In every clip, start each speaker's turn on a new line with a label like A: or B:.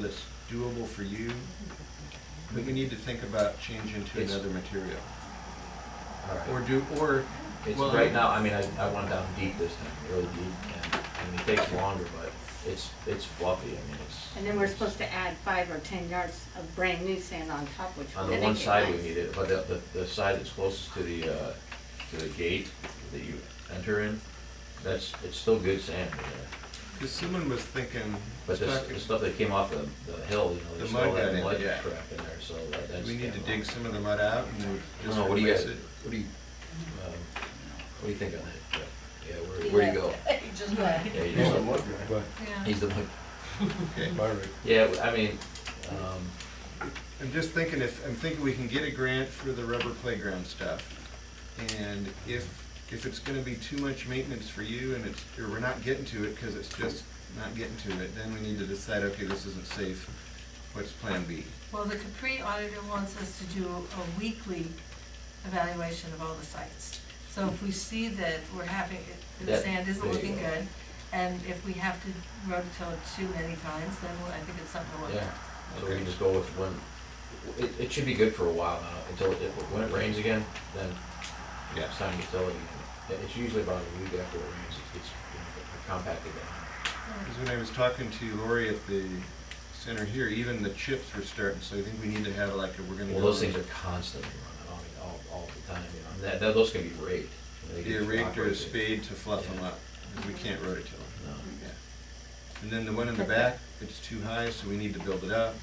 A: that's doable for you, we we need to think about changing to
B: It's-
A: another material.
B: All right.
A: Or do, or,
B: It's
A: well,
B: right now, I mean, I, I went down deep this time, really deep, and, I mean, it takes longer, but it's, it's fluffy, I mean, it's.
C: And then we're supposed to add five or ten yards of brand new sand on top, which
B: On
C: would
B: the
C: make
B: one
C: it
B: side we
C: nice.
B: need it, but the, the, the side that's closest to the, uh, to the gate that you enter in, that's, it's still good sand, you know.
A: because someone was thinking,
B: But this,
A: talking-
B: the stuff that came off the, the hill, you know,
A: The
B: there's
A: mud
B: all
A: got
B: that
A: in,
B: mud
A: yeah.
B: crap in there, so that- that's.
A: we need to
B: getting
A: dig
B: off.
A: some of the mud out and then
B: I don't
A: just
B: know, what do you
A: replace
B: guys,
A: it.
B: what do you, um, what do you think on that? Yeah,
D: He
B: where, where do you go?
D: left. He just left.
B: Yeah, you
E: He's a
B: just-
E: look guy,
B: He's the one.
A: Okay.
E: by right.
B: Yeah, I mean, um,
A: I'm just thinking if, I'm thinking we can get a grant for the rubber playground stuff. And if, if it's gonna be too much maintenance for you and it's, or we're not getting to it because it's just not getting to it, then we need to decide, okay, this isn't safe, what's plan B?
F: Well, the Capri auditor wants us to do a weekly evaluation of all the sites. So if we see that we're having, the
B: That-
F: sand isn't
B: there you
F: looking
B: go.
F: good, and if we have to rototill it too many times, then I think it's something to look
B: yeah,
F: at.
B: so we can just go with one, it, it should be good for a while now, until, it when it rains again, then
A: Yeah.
B: it's time to tell it. Yeah, It's usually about a week after it rains, it gets you know, compacted down.
A: Because when I was talking to Lori at the center here, even the chips were starting, so I think we need to have like, a we're gonna.
B: Well,
A: go-
B: those things are constantly running, I mean, all, all the time, you know, and that, that, those can be raked. you know, they
A: Be a
B: can be
A: rake or a
B: operated.
A: spade to fluff them
B: Yeah.
A: up, 'cause we can't rototill them.
B: No.
A: Yeah. And then the one in the back, it's too high, so we need to build it up.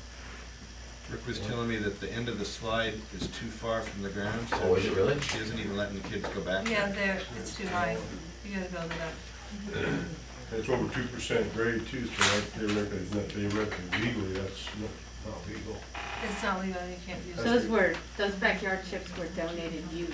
A: Rick was telling me that the end of the slide is too far from the ground, so.
B: Oh, is it really?
A: She isn't even letting the kids go back
F: Yeah,
A: there.
F: there, it's too high, you gotta build it up.
E: That's over two percent grade too, so that theoretically, it's not theoretically legally, that's not, not legal.
F: It's not legal, you can't use it.
C: Those were, those backyard chips were donated used.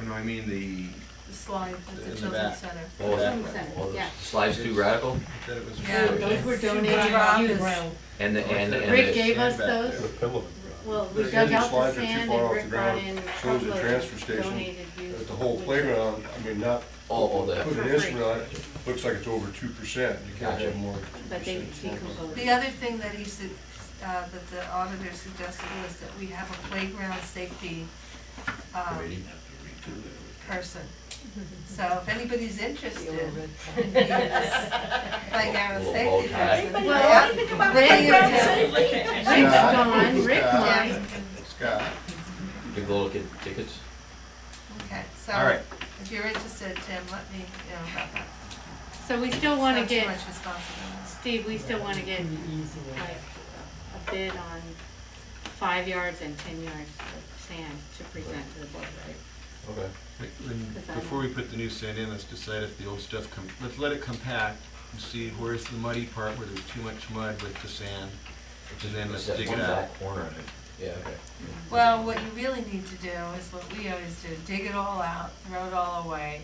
A: Oh, no, I mean the,
F: The slide at
A: In
F: the
A: the
F: children's
A: back.
F: center.
B: Oh, that,
C: Some sense,
B: oh, the
C: yeah.
B: slides too radical,
A: I thought it was.
F: Yeah,
C: Those were
F: it's too broad.
C: donated used.
F: Brown.
B: and the, and, and.
C: Rick
B: the-
C: gave us
A: Sand back
C: those.
E: The pillow.
C: Well, we
E: The
C: dug
E: end
C: out the
E: slides are too
C: sand
E: far
C: and
E: off
C: Rick
E: the
C: brought
E: ground.
C: in a
E: So is the
C: couple of
E: transfer station.
C: donated used.
E: But the whole
C: wood
E: playground, I mean, not.
B: Oh, oh, that.
E: Put an instrument on it, looks like it's over two percent, you can't
B: Gotcha.
E: have more. than
C: chips, But they
E: 2%.
C: decomposed.
F: The other thing that he said, uh, that the auditor suggested was that we have a playground safety, um, person. So if anybody's interested, in this playground
B: Little bow
F: safety
B: tie.
F: person.
C: Well,
F: yeah,
C: playground
F: videotape.
C: Rick's
E: Yeah.
C: gone, Rick
E: Yeah.
C: left.
A: Scott,
B: The little kid tickets.
F: Okay,
A: All
F: so
A: right.
F: if you're interested, Tim, let me know about that.
C: So we still wanna
F: Not too
C: get,
F: much responsibility.
C: Steve, we still wanna get like a bid on five yards and ten yards of sand to present to the board, right?
B: Okay.
A: wait, when- before we put the new sand in, let's decide if the old stuff, com- let's let it compact and see where's the muddy part where there's too much mud with the sand. And then let's
B: Just that
A: dig
B: one
A: it out.
B: back Corner of it. Yeah, okay.
F: Well, what you really need to do is what we always do, dig it all out, throw it all away,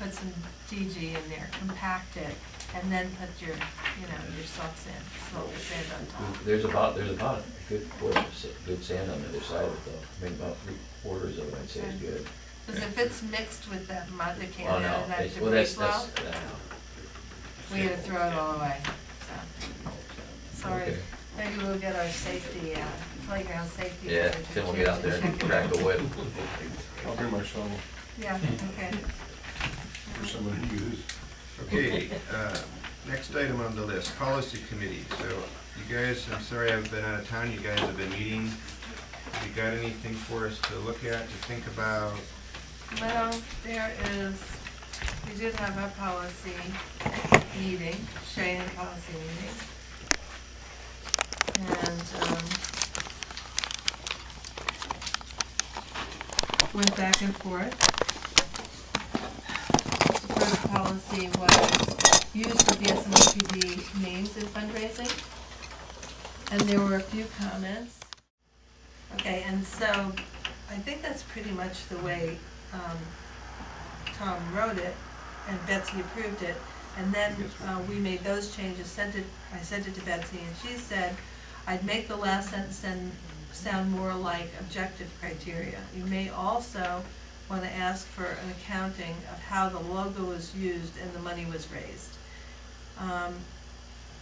F: put some DG in there, compact it, and then put your, you know, your salts in, salt and sand on top.
B: There's about, there's about a good quarter, of sa- good sand on the other side of it though. I mean, about three quarters of it I'd say is good.
F: Because if it's mixed with that mud that came
B: Well,
F: out
B: Oh, no,
F: of that
B: it's- well, that's,
F: debris well,
B: that's, uh,
F: we gotta throw it all away, so. Sorry,
B: Okay.
F: maybe we'll get our safety, uh, playground safety.
B: yeah,
F: manager
B: Tim will
F: to-
B: get out
F: to
B: there and
F: check it
B: crack
F: out.
B: the whip.
E: I'll bring my shovel
F: Yeah, okay.
E: for somebody to use.
A: Okay, uh, next item on the list, policy committee. So you guys, I'm sorry I've been out of town, you guys have been meeting. You got anything for us to look at, to think about?
F: Well, there is, we did have a policy meeting, Cheyenne policy meeting. And, um, went back and forth. The first policy was use of the SMPD names in fundraising. And there were a few comments. Okay, and so I think that's pretty much the way um, Tom wrote it, and Betsy approved it. And then
A: Yes,
F: uh, we made those changes, sent it, I sent it to Betsy, and she said, I'd make the last sentence and sound more like objective criteria. You may also want to ask for an accounting of how the logo was used and the money was raised. Um,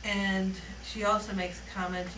F: And she also makes a comment,